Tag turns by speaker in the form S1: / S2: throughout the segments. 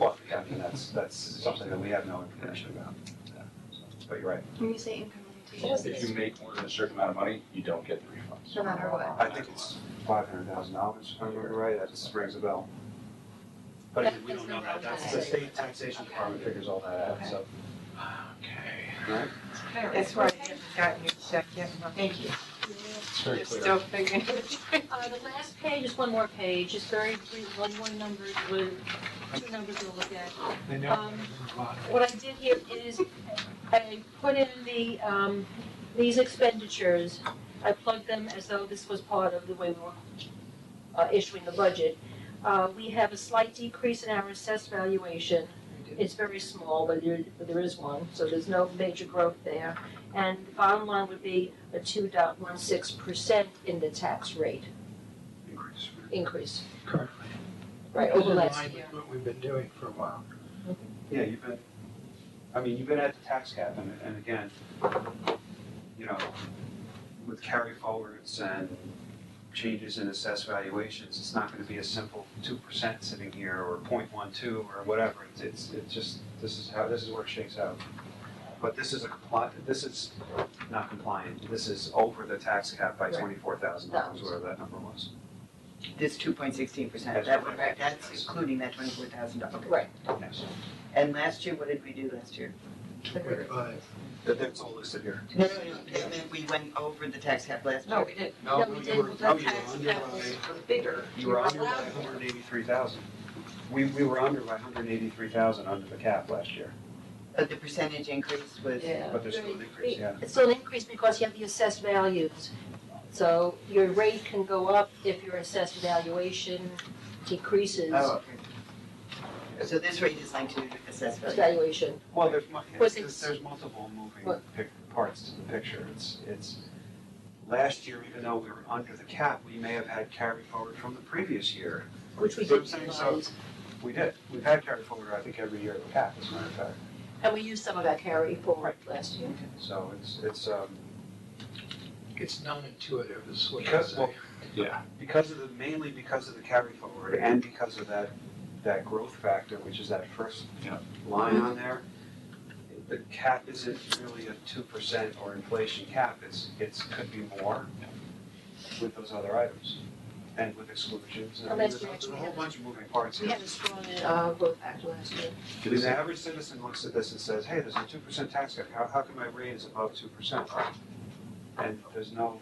S1: Well, yeah, I mean, that's, that's something that we have no information about. Yeah, so, But you're right.
S2: When you say income limitation,
S3: If you make more than a certain amount of money, you don't get the refunds.
S2: no matter what.
S1: I think it's five hundred thousand dollars, if I remember right, that just rings a bell. But again, we don't know that, that's the state taxation department figures all that out, so.
S3: Okay.
S1: Right?
S4: That's why I haven't gotten your check yet, Mom.
S5: Thank you.
S1: It's very
S4: They're
S1: clear.
S4: still figuring it out.
S5: Uh, the last page is one more page, just very brief, one more number with, two numbers we'll look at.
S6: They
S5: Um, What I did here is I put in the, um, these expenditures, I plugged them as though this was part of the way we were uh, issuing the budget. Uh, we have a slight decrease in our assessed valuation. It's very small, but there, but there is one, so there's no major growth there. And the bottom line would be a two dot one six percent in the tax rate
S6: Increase
S5: increase,
S6: currently.
S5: right,
S6: This
S5: over
S6: is
S5: last
S6: aligned
S5: year.
S6: with What we've been doing for a while.
S1: Yeah, you've been, I mean, you've been at the tax cap and, and again, you know, with carry forwards and changes in assessed valuations, it's not gonna be a simple two percent sitting here or 0.12 or whatever. It's, it's, it's just, this is how, this is where it shakes out. But this is a compliant, this is not compliant. This is over the tax cap by
S5: Right.
S1: twenty-four thousand dollars, whatever that number was.
S7: This two point sixteen percent,
S1: That's
S7: that would,
S1: right.
S7: that's including that twenty-four thousand dollars.
S5: Right.
S1: Yes.
S7: And last year, what did we do last year?
S6: With, uh,
S1: That, that's all listed here.
S7: No, no, no, and then we went over the tax cap last year.
S4: No, we didn't.
S6: No,
S5: we
S6: you
S5: did.
S6: were,
S4: The
S6: no, you were
S4: tax
S6: under
S4: cap was
S6: by-
S4: bigger.
S1: You were under by hundred and eighty-three thousand. We, we were under by hundred and eighty-three thousand under the cap last year,
S7: Uh, the percentage increase was,
S5: Yeah.
S1: but there's still an increase, yeah.
S5: It's still an increase because you have the assessed values. So your rate can go up if your assessed valuation decreases
S7: oh, okay. So this rate is linked to assessed
S5: its
S7: value.
S5: valuation.
S1: Well, there's, mu-
S5: Was
S1: there's,
S5: it-
S1: there's multiple moving
S5: What?
S1: pic- parts to the picture, it's, it's, last year, even though we were under the cap, we may have had carry forward from the previous year.
S5: Which we
S1: So I'm
S5: did
S1: saying, so-
S5: utilize,
S1: We did, we've had carry forward, I think, every year of the cap, as a matter of fact,
S5: and we used some of that carry forward last year.
S1: so it's, it's, um,
S6: it's non-intuitive is what I
S1: Because-
S6: say.
S1: because of the, mainly because of the carry forward and because of that, that growth factor, which is that first
S3: Yeah.
S1: line on there, the cap isn't really a two percent or inflation cap, it's, it's, could be more with those other items and with exclusions. and I mean,
S5: Unless you
S1: there's a-
S5: actually
S1: There's a whole
S5: have-
S1: bunch of moving parts
S5: We
S1: here.
S5: had a strong uh, growth factor last year.
S1: I mean, the average citizen looks at this and says, hey, there's a two percent tax cut, how, how come my rate is above two percent? And there's no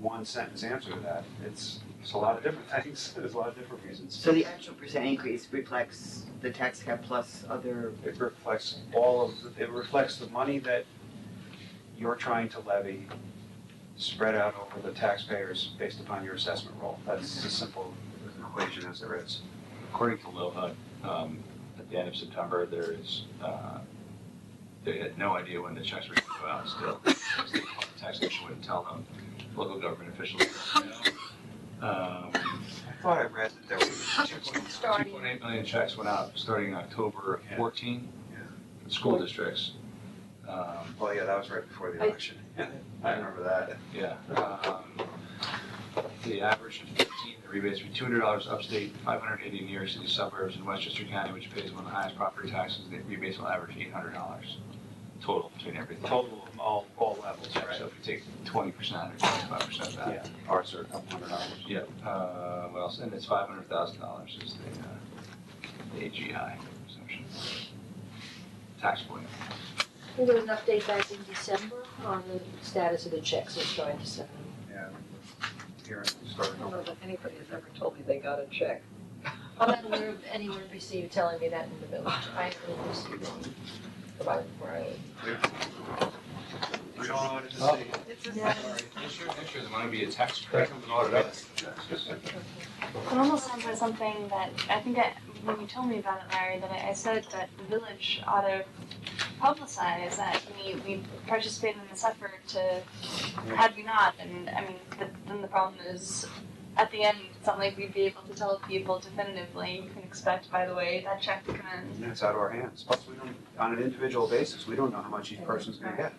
S1: one sentence answer to that, it's, it's a lot of different things, there's a lot of different reasons.
S7: So the actual percent increase reflects the tax cap plus other,
S1: It reflects all of, the- it reflects the money that you're trying to levy spread out over the taxpayers based upon your assessment roll. That's as simple an equation as there is.
S3: According to LOHA, um, at the end of September, there is, uh, they had no idea when the checks were gonna go out still. Taxation wouldn't tell them, local government officials. don't know. Um,
S1: I thought I read that there was two point
S3: Two point eight million checks went out starting October
S1: Yeah.
S3: fourteen,
S1: Yeah.
S3: for school districts. Um,
S1: Well, yeah, that was right before the
S5: I-
S1: election. I remember that.
S3: Yeah. um, The average of fifteen, the rebates were two hundred dollars upstate, five hundred eighty in New York City suburbs, and Westchester County, which pays one of the highest property taxes, the rebates will average eight hundred dollars total between everything.
S1: Total of all, all levels, right? uh,
S3: So if you take twenty percent or twenty-five percent of that.
S1: Yeah, ours are a couple hundred dollars.
S3: Yeah. Uh, what else? And it's five hundred thousand dollars is the, uh, the AGI exemption. Tax point.
S5: I think There was an update back in December on the status of the checks, I was trying to send them.
S1: Yeah. Here,
S4: I
S1: starting
S4: don't
S1: over.
S4: know that anybody has ever told me they got a check.
S5: I'm not aware of anyone received telling me that in the village. I haven't received one about where I live.
S1: We all wanted to see.
S4: It's
S5: Yeah.
S4: a,
S3: Next year, next year, there might be a tax
S1: That
S3: credit.
S1: comes an audit up.
S2: It almost sounds like something that I think I, when you told me about it, Larry, that I, I said that the village ought to publicize that we, we participated in this effort to, had we not, and I mean, the, then the problem is, at the end, it's not like we'd be able to tell people definitively, you can expect, by the way, that check come in.
S1: And it's out of our hands. Plus, we don't, on an individual basis, we don't know how much each person's gonna get.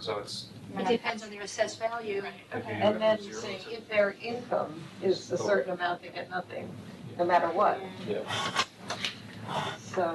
S1: So it's.
S5: It depends on their assessed value.
S1: Okay.
S4: and then saying if their income is a certain amount, they get nothing, no matter what. so.